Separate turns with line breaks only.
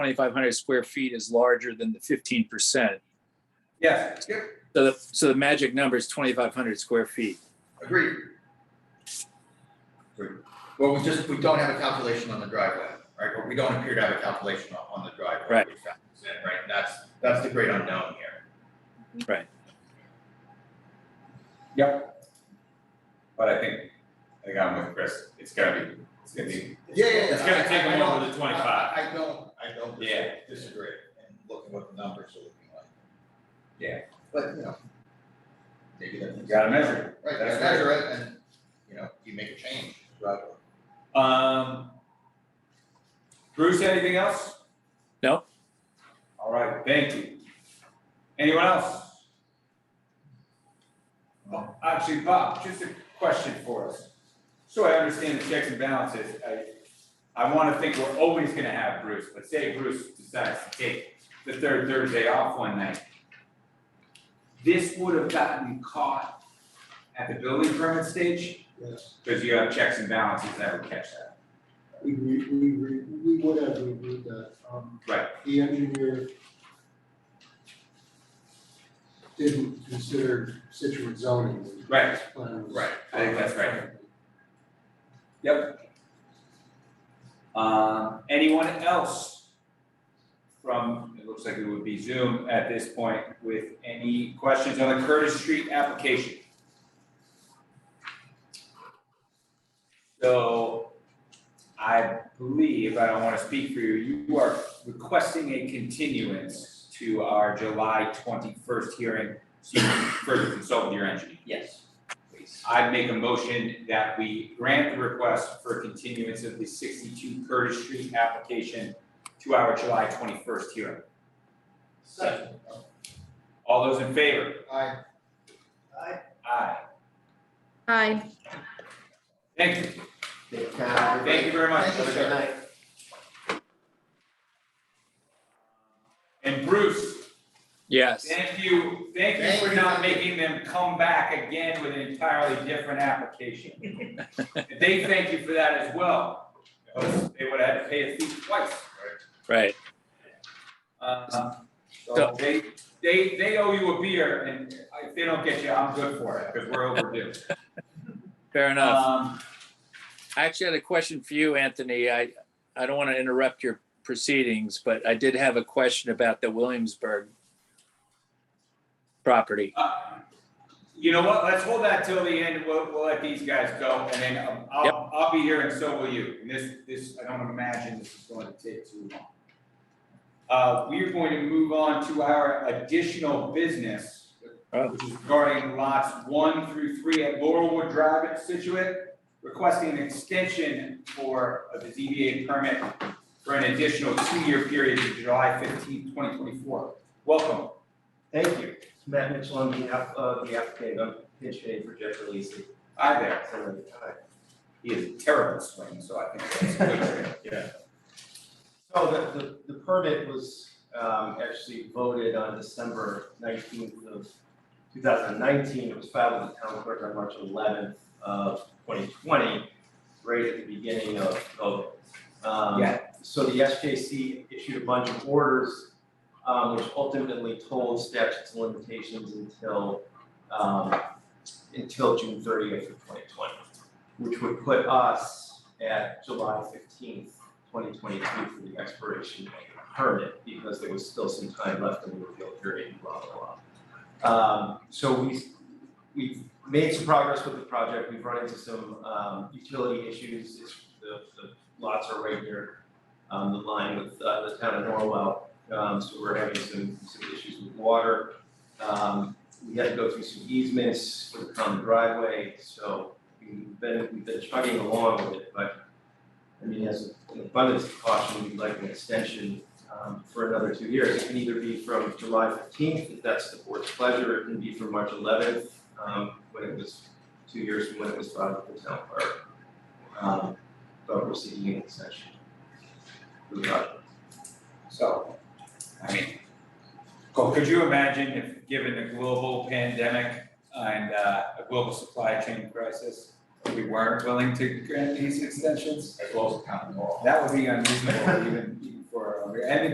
2,500 square feet is larger than the 15%.
Yes, yep,
So the, so the magic number is 2,500 square feet.
agreed. Agreed. Well, we just, we don't have a calculation on the driveway, right, or we don't appear to have a calculation on, on the driveway.
Right.
which factors in, Right, that's, that's the great unknown here.
Right.
Yep.
But I think, I think I'm with Chris, it's gotta be, it's gonna be.
Yeah, yeah, yeah.
It's gonna
I-
take
I- I
them over
don't-
the 25.
I I don't, I don't dis-
Yeah.
disagree, and look at what the numbers are looking like.
Yeah.
But, you know. Maybe that's.
You gotta measure
Right, you gotta
That's
measure it, and, you know, you make a change, right?
it. Um. Bruce, anything else?
No.
All right, thank you. Anyone else? Oh, Actually, Bob, just a question for us. So I understand the checks and balances, I, I wanna think we're always gonna have Bruce, but say Bruce decides to take the third Thursday off one night. This would have gotten caught at the building permit stage,
Yes,
because you have checks and balances that would catch that.
we, re- we, re- we would have reviewed that. Um,
Right.
The engineer didn't consider Situate zoning. when
Right.
this plan was-
Right,
I think that's right. Yep. Um, anyone else from, it looks like it would be Zoom at this point with any questions on the Curtis Street application? So I believe, I don't wanna speak for you, you are requesting a continuance to our July twenty-first hearing, so you can further consult with your engineer.
Yes,
I'd make a motion that we grant the request for continuance of the sixty-two Curtis Street application to our July twenty-first hearing.
Second.
All those in favor?
I,
Aye.
Aye.
Thank you. Thank
thank
you very much.
Thank you, sir.
And Bruce,
Yes.
thank you, thank you for not making them come back again with an entirely different application. And They thank you for that as well, because they would have had to pay a fee twice.
Right.
Um, So they, they, they owe you a beer and if they don't get you, I'm good for it because we're overdue.
Fair enough.
Um,
I actually had a question for you, Anthony. I, I don't want to interrupt your proceedings, but I did have a question about the Williamsburg property.
uh, You know what? Let's hold that till the end. We'll, we'll let these guys go and then um,
Yep.
I'll, I'll be here and so will you. And this, this, I don't imagine this is going to take too long. Uh, we are going to move on to our additional business,
Oh.
which is regarding lots one through three at Laurelwood Drive at Situate, requesting an extension for the ZBA permit for an additional two-year period to July fifteenth, twenty twenty-four. Welcome.
thank you. Matt Mitchell on behalf of the applicant, I'm pitch hitting for Jeff Releasy.
Hi there.
Hi.
He is a terrible swing, so I think that's a good trade.
So the, the, the permit was, um, actually voted on December nineteenth of two thousand nineteen. It was filed with the town clerk on March eleventh of twenty twenty, right at the beginning of COVID. Um,
Yeah.
So the SJC issued a bunch of orders, um, which ultimately told statutes and limitations until, um, until June thirtieth of twenty twenty, which would put us at July fifteenth 2022 for the expiration of the permit because there was still some time left in the appeal period, blah, blah, blah. Um, so we, we've made some progress with the project, we've run into some, um, utility issues, it's, the, the lots are right near, um, the line with, uh, the town of Norwell, um, so we're having some, some issues with water. Um, we had to go through some easements for the common driveway, so we've been, we've been chugging along with it, but I mean, as an abundance of caution, we'd like an extension um, for another two years. It can either be from July fifteenth, if that's the board's pleasure, it can be from March eleventh, um, when it was two years from when it was filed with the town clerk. Um, But we're seeking an extension. for the project.
So, I mean, co- could you imagine if, given the global pandemic and uh, a global supply chain crisis, we weren't willing to grant these extensions?
as well as the common law.
That would be unreasonable even even for, and